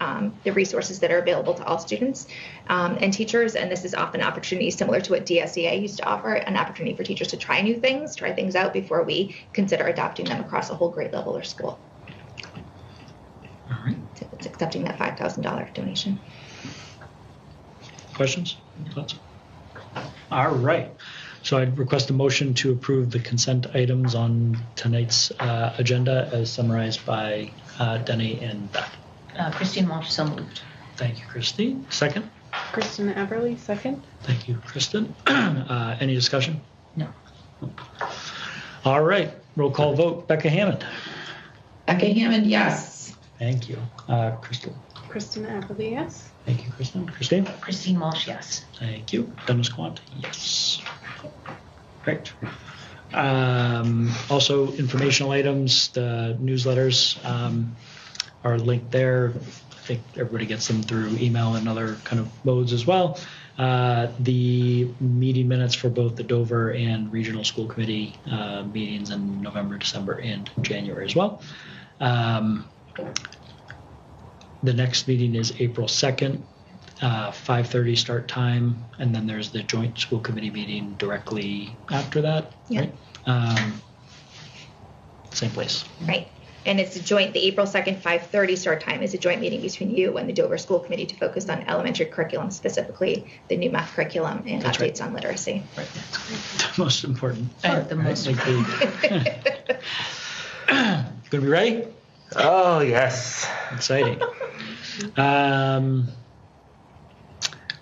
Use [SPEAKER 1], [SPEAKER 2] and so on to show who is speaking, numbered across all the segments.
[SPEAKER 1] um, the resources that are available to all students um, and teachers. And this is often an opportunity similar to what DSEA used to offer an opportunity for teachers to try new things, try things out before we consider adopting them across a whole grade level or school.
[SPEAKER 2] All right.
[SPEAKER 1] So It's accepting that $5,000 donation.
[SPEAKER 2] Mm-hmm. Questions? Thoughts? All right. So I'd request a motion to approve the consent items on tonight's uh, agenda as summarized by uh, Denny and Beth.
[SPEAKER 3] Uh, Christine Walsh, so moved.
[SPEAKER 2] Thank you, Christine. Second.
[SPEAKER 4] Kristen Everly, second.
[SPEAKER 2] Thank you, Kristen. uh, any discussion?
[SPEAKER 3] No.
[SPEAKER 2] All right. Roll call vote. Becca Hammond.
[SPEAKER 5] Becca Hammond, yes.
[SPEAKER 2] Thank you, uh, Crystal.
[SPEAKER 4] Kristen Everly, yes.
[SPEAKER 2] Thank you, Kristen. Christine.
[SPEAKER 3] Christine Walsh, yes.
[SPEAKER 2] Thank you. Dennis Quant, yes. Great. Um, also, informational items, the newsletters um, are linked there. I think everybody gets them through email and other kind of modes as well. Uh, the meeting minutes for both the Dover and Regional School Committee uh, meetings in November, December, and January as well. Um, the next meeting is April 2nd uh, 5:30 start time, and then there's the joint school committee meeting directly after that,
[SPEAKER 1] Yeah.
[SPEAKER 2] right? Um, same place.
[SPEAKER 1] Right. And it's a joint, the April 2nd, 5:30 start time is a joint meeting between you and the Dover School Committee to focus on elementary curriculum, specifically the new math curriculum and
[SPEAKER 2] That's right.
[SPEAKER 1] updates on literacy.
[SPEAKER 2] Right. The most important.
[SPEAKER 3] Uh,
[SPEAKER 2] part,
[SPEAKER 3] the
[SPEAKER 2] right?
[SPEAKER 3] most
[SPEAKER 2] Like the- Gonna be ready?
[SPEAKER 6] Oh, yes.
[SPEAKER 2] Exciting. Um,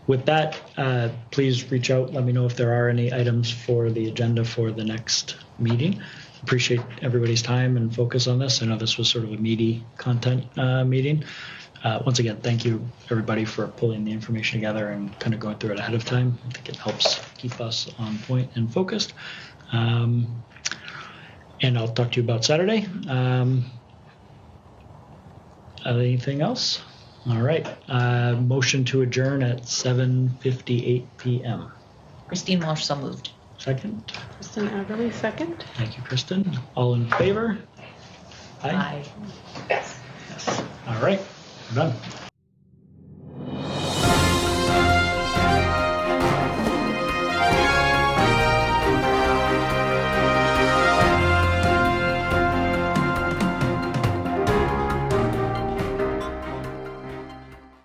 [SPEAKER 2] with that, uh, please reach out. Let me know if there are any items for the agenda for the next meeting. Appreciate everybody's time and focus on this. I know this was sort of a meaty content uh, meeting. Uh, once again, thank you everybody for pulling the information together and kind of going through it ahead of time. I think it helps keep us on point and focused. Um, and I'll talk to you about Saturday. Um, Anything else? All right. Uh, motion to adjourn at 7:58 p.m.
[SPEAKER 3] Christine Walsh, so moved.
[SPEAKER 2] Second.
[SPEAKER 4] Kristen Everly, second.
[SPEAKER 2] Thank you, Kristen. All in favor?
[SPEAKER 3] Aye.
[SPEAKER 2] All right. We're done.